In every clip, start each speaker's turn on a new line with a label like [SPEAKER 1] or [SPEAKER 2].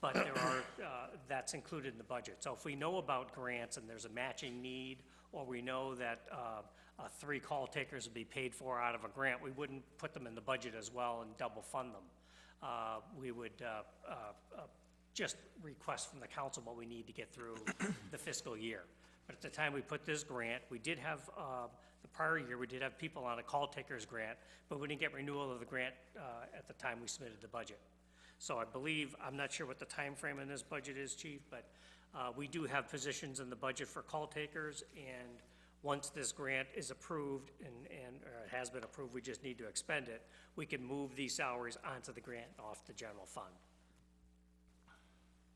[SPEAKER 1] but there are, uh, that's included in the budget. So if we know about grants and there's a matching need, or we know that uh, uh, three call takers will be paid for out of a grant, we wouldn't put them in the budget as well and double fund them. Uh, We would uh, uh, uh, just request from the council what we need to get through the fiscal year. But at the time we put this grant, we did have, uh, the prior year, we did have people on a call takers grant, but we didn't get renewal of the grant uh, at the time we submitted the budget. So I believe, I'm not sure what the time frame in this budget is, chief, but uh, we do have positions in the budget for call takers, and once this grant is approved and, and, or it has been approved, we just need to expend it, we can move these salaries onto the grant and off the general fund.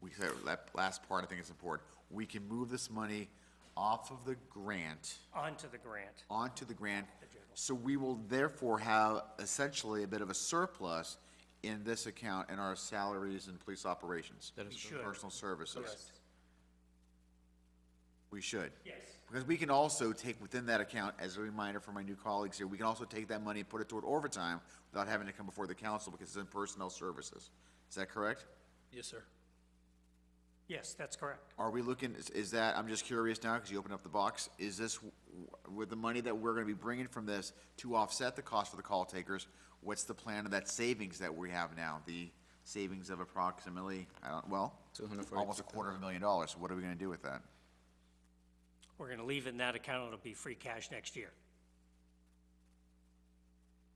[SPEAKER 2] we said that last part, I think is important. We can move this money off of the grant
[SPEAKER 1] Onto the grant,
[SPEAKER 2] onto the grant. So we will therefore have essentially a bit of a surplus in this account in our salaries and police operations.
[SPEAKER 1] We should.
[SPEAKER 2] Personal services.
[SPEAKER 1] Yes.
[SPEAKER 2] We should.
[SPEAKER 1] Yes.
[SPEAKER 2] Because we can also take within that account, as a reminder for my new colleagues here, we can also take that money and put it toward overtime without having to come before the council because it's in personnel services. Is that correct?
[SPEAKER 3] Yes, sir.
[SPEAKER 1] Yes, that's correct.
[SPEAKER 2] Are we looking, is, is that, I'm just curious now, because you opened up the box, is this, w- with the money that we're gonna be bringing from this to offset the cost for the call takers, what's the plan of that savings that we have now? The savings of approximately, I don't, well, almost a quarter of a million dollars, what are we gonna do with that?
[SPEAKER 1] We're gonna leave it in that account, it'll be free cash next year.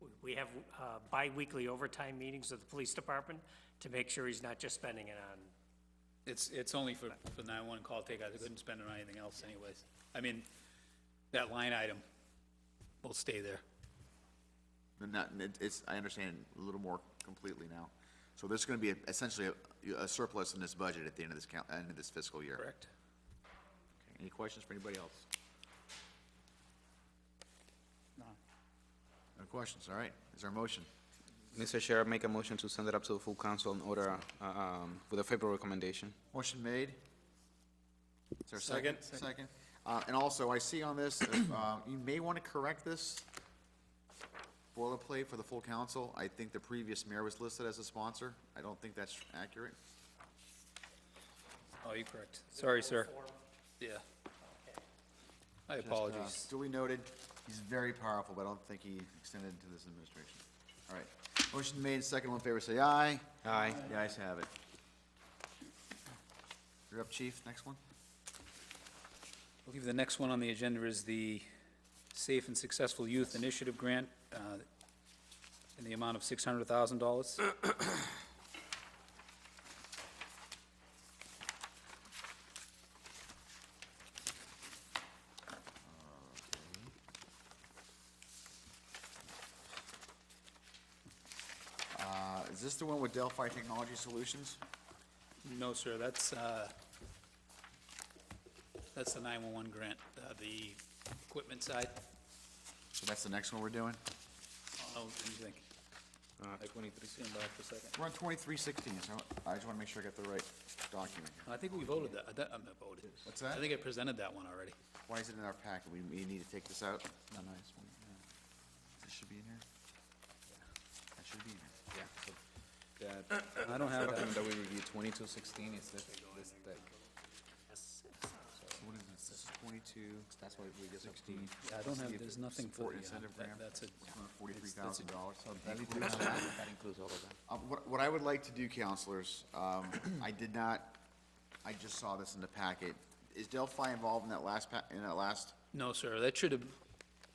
[SPEAKER 1] We- We have uh, bi-weekly overtime meetings of the police department to make sure he's not just spending it on,
[SPEAKER 3] It's, it's only for, for nine-one call takeouts. I couldn't spend it on anything else anyways. I mean, that line item will stay there.
[SPEAKER 2] They're Not, it- it's, I understand a little more completely now. So there's gonna be essentially a, a surplus in this budget at the end of this count, end of this fiscal year.
[SPEAKER 3] Correct.
[SPEAKER 2] Any questions for anybody else?
[SPEAKER 3] No.
[SPEAKER 2] No questions, all right, is there a motion?
[SPEAKER 4] Mr. Chair, I make a motion to send it up to the full council and order uh, um, with a favorable recommendation.
[SPEAKER 2] Motion made. Is there a second?
[SPEAKER 3] Second.
[SPEAKER 2] Second. Uh, and also, I see on this, uh, you may want to correct this boilerplate for the full council. I think the previous mayor was listed as a sponsor. I don't think that's accurate.
[SPEAKER 3] Oh, you're correct. Sorry, sir. Yeah. I apologize.
[SPEAKER 2] Duly noted, he's very powerful, but I don't think he extended to this administration. All right. Motion made, second, all in favor, say aye.
[SPEAKER 4] Aye.
[SPEAKER 2] The ayes have it. You're up, chief, next one?
[SPEAKER 3] I believe the next one on the agenda is the Safe and Successful Youth Initiative Grant uh, in the amount of $600,000.
[SPEAKER 2] Uh, is this the one with Delphi Technology Solutions?
[SPEAKER 3] No, sir, that's, uh, that's the 911 grant, uh, the equipment side.
[SPEAKER 2] So that's the next one we're doing?
[SPEAKER 3] Oh, what do you think?
[SPEAKER 4] Uh, 23.
[SPEAKER 3] Stand by for a second.
[SPEAKER 2] We're on twenty-three sixteen, so I just wanna make sure I got the right document. here.
[SPEAKER 3] I think we voted that, I don't- I'm not voted.
[SPEAKER 2] What's that?
[SPEAKER 3] I think I presented that one already.
[SPEAKER 2] Why is it in our packet? We, we need to take this out? No, no, it's, This should be in here? That should be in here.
[SPEAKER 4] Yeah. so That
[SPEAKER 3] I don't have that.
[SPEAKER 4] document that we reviewed, 2216, is this, this thick.
[SPEAKER 2] So what is this? This is twenty-two, that's why we just.
[SPEAKER 3] I don't have, there's nothing for
[SPEAKER 2] Support
[SPEAKER 3] the, uh,
[SPEAKER 2] incentive
[SPEAKER 3] that-
[SPEAKER 2] grant,
[SPEAKER 3] that's it.
[SPEAKER 2] Uh, forty-three thousand dollars.
[SPEAKER 4] That includes all of that.
[SPEAKER 2] Uh, What, what I would like to do, counselors, um, I did not, I just saw this in the packet. Is Delphi involved in that last pa, in that last?
[SPEAKER 3] No, sir, that should have,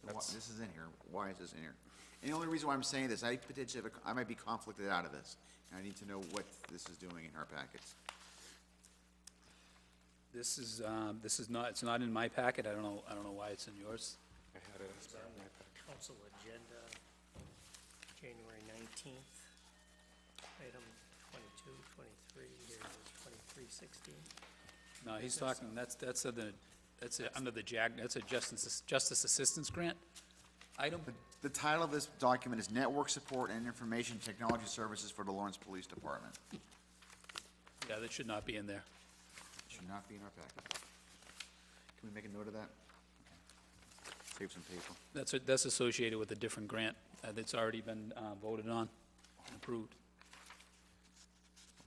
[SPEAKER 2] Why- This is in here. Why is this in here? And the only reason why I'm saying this, I potentially, have a- I might be conflicted out of this. And I need to know what this is doing in our packets.
[SPEAKER 3] this is, um, this is not, it's not in my packet, I don't know, I don't know why it's in yours.
[SPEAKER 4] I had it as part of my pack.
[SPEAKER 1] council agenda, January 19th, item 22, 23, here it is, 2316.
[SPEAKER 3] No, he's talking, that's, that's a, that's a, under the JAG, that's a justice, justice assistance grant item.
[SPEAKER 2] The title of this document is Network Support and Information Technology Services for the Lawrence Police Department.
[SPEAKER 3] Yeah, that should not be in there.
[SPEAKER 2] It Should not be in our packet. Can we make a note of that? Save some paper.
[SPEAKER 3] That's, that's associated with a different grant uh, that's already been uh, voted on and approved.